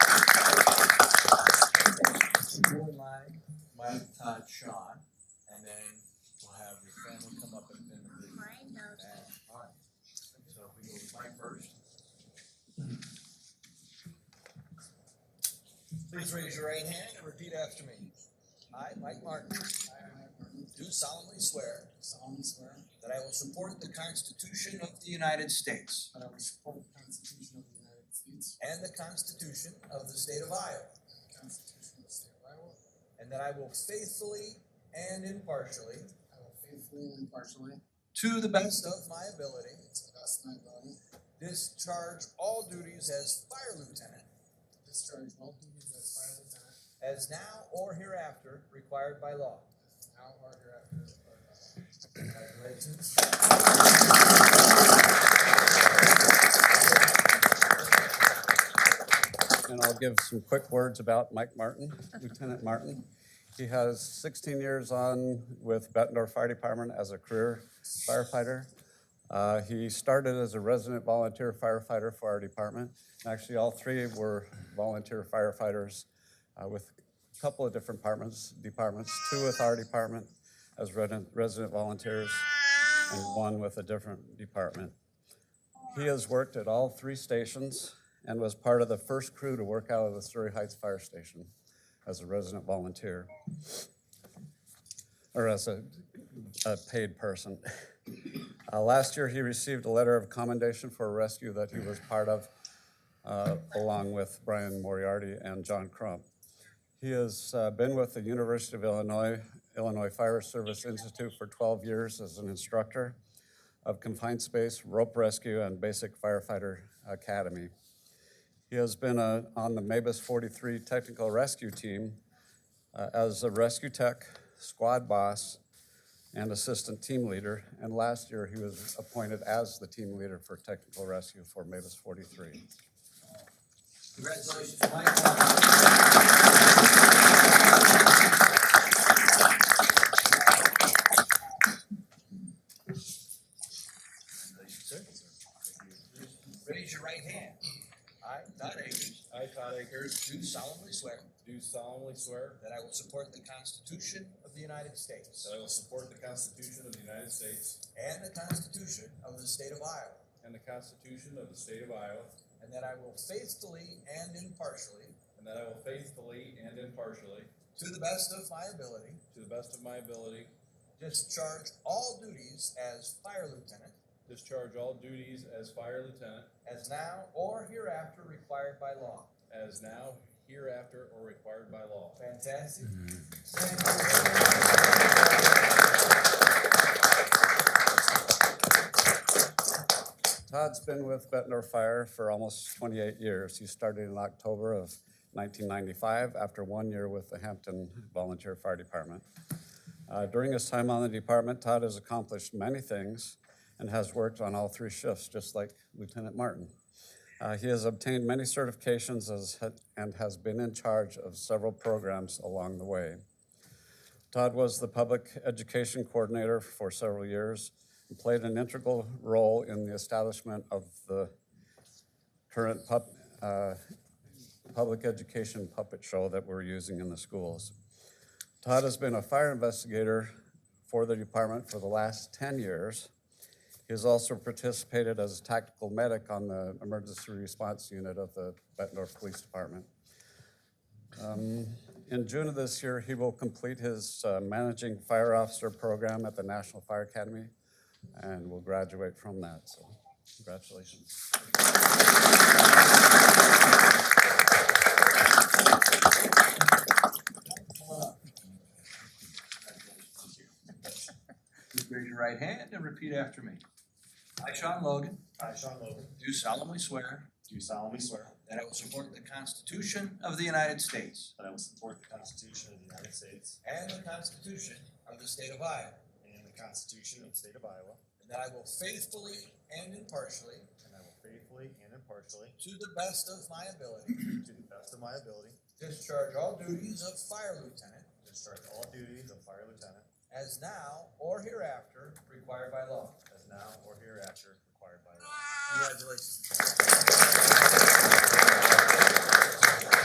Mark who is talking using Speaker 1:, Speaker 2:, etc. Speaker 1: Please raise your right hand and repeat after me. I, Mike Martin,
Speaker 2: I, Mike Martin,
Speaker 1: do solemnly swear
Speaker 2: do solemnly swear
Speaker 1: that I will support the Constitution of the United States
Speaker 2: that I will support the Constitution of the United States
Speaker 1: and the Constitution of the State of Iowa,
Speaker 2: and the Constitution of the State of Iowa.
Speaker 1: and that I will faithfully and impartially,
Speaker 2: I will faithfully and impartially,
Speaker 1: to the best of my ability,
Speaker 2: to the best of my ability,
Speaker 1: discharge all duties as fire lieutenant,
Speaker 2: discharge all duties as fire lieutenant
Speaker 1: as now or hereafter required by law.
Speaker 2: as now or hereafter uh, required by law.
Speaker 1: Congratulations.
Speaker 3: and I'll give some quick words about Mike Martin, Lieutenant Martin. He has 16 years on with Bettendorf Fire Department as a career firefighter. Uh, He started as a resident volunteer firefighter for our department. Actually, all three were volunteer firefighters uh, with a couple of different departments, departments, two with our department as resident resident volunteers and one with a different department. He has worked at all three stations and was part of the first crew to work out of the Surrey Heights Fire Station as a resident volunteer, or as a, a paid person. Uh, last year, he received a letter of commendation for a rescue that he was part of, uh, along with Brian Moriarty and John Crump. He has uh, been with the University of Illinois, Illinois Fire Service Institute for 12 years as an instructor of confined space, rope rescue, and basic firefighter academy. He has been uh, on the MABUS 43 technical rescue team uh, as a rescue tech, squad boss, and assistant team leader. And last year, he was appointed as the team leader for technical rescue for MABUS 43.
Speaker 1: Congratulations, Mike. Raise your right hand. I, Todd Akers,
Speaker 4: I, Todd Akers,
Speaker 1: do solemnly swear
Speaker 4: do solemnly swear
Speaker 1: that I will support the Constitution of the United States
Speaker 4: that I will support the Constitution of the United States
Speaker 1: and the Constitution of the State of Iowa,
Speaker 4: and the Constitution of the State of Iowa,
Speaker 1: and that I will faithfully and impartially,
Speaker 4: and that I will faithfully and impartially,
Speaker 1: to the best of my ability,
Speaker 4: to the best of my ability,
Speaker 1: discharge all duties as fire lieutenant
Speaker 4: discharge all duties as fire lieutenant
Speaker 1: as now or hereafter required by law.
Speaker 4: as now, hereafter, or required by law.
Speaker 1: Fantastic.
Speaker 3: Todd's been with Bettendorf Fire for almost 28 years. He started in October of 1995 after one year with the Hampton Volunteer Fire Department. Uh, During his time on the department, Todd has accomplished many things and has worked on all three shifts, just like Lieutenant Martin. Uh, He has obtained many certifications as- and has been in charge of several programs along the way. Todd was the public education coordinator for several years and played an integral role in the establishment of the current pub, uh, public education puppet show that we're using in the schools. Todd has been a fire investigator for the department for the last 10 years. He has also participated as a tactical medic on the emergency response unit of the Bettendorf Police Department. In June of this year, he will complete his uh, Managing Fire Officer program at the National Fire Academy and will graduate from that, so congratulations.
Speaker 1: Please raise your right hand and repeat after me. I, Sean Logan,
Speaker 5: I, Sean Logan,
Speaker 1: do solemnly swear
Speaker 5: do solemnly swear
Speaker 1: that I will support the Constitution of the United States
Speaker 5: that I will support the Constitution of the United States
Speaker 1: and the Constitution of the State of Iowa,
Speaker 5: and the Constitution of the State of Iowa,
Speaker 1: and that I will faithfully and impartially,
Speaker 5: and I will faithfully and impartially,
Speaker 1: to the best of my ability,
Speaker 5: to the best of my ability,
Speaker 1: discharge all duties of fire lieutenant
Speaker 5: discharge all duties of fire lieutenant
Speaker 1: as now or hereafter required by law.
Speaker 5: as now or hereafter required by law.
Speaker 1: Congratulations.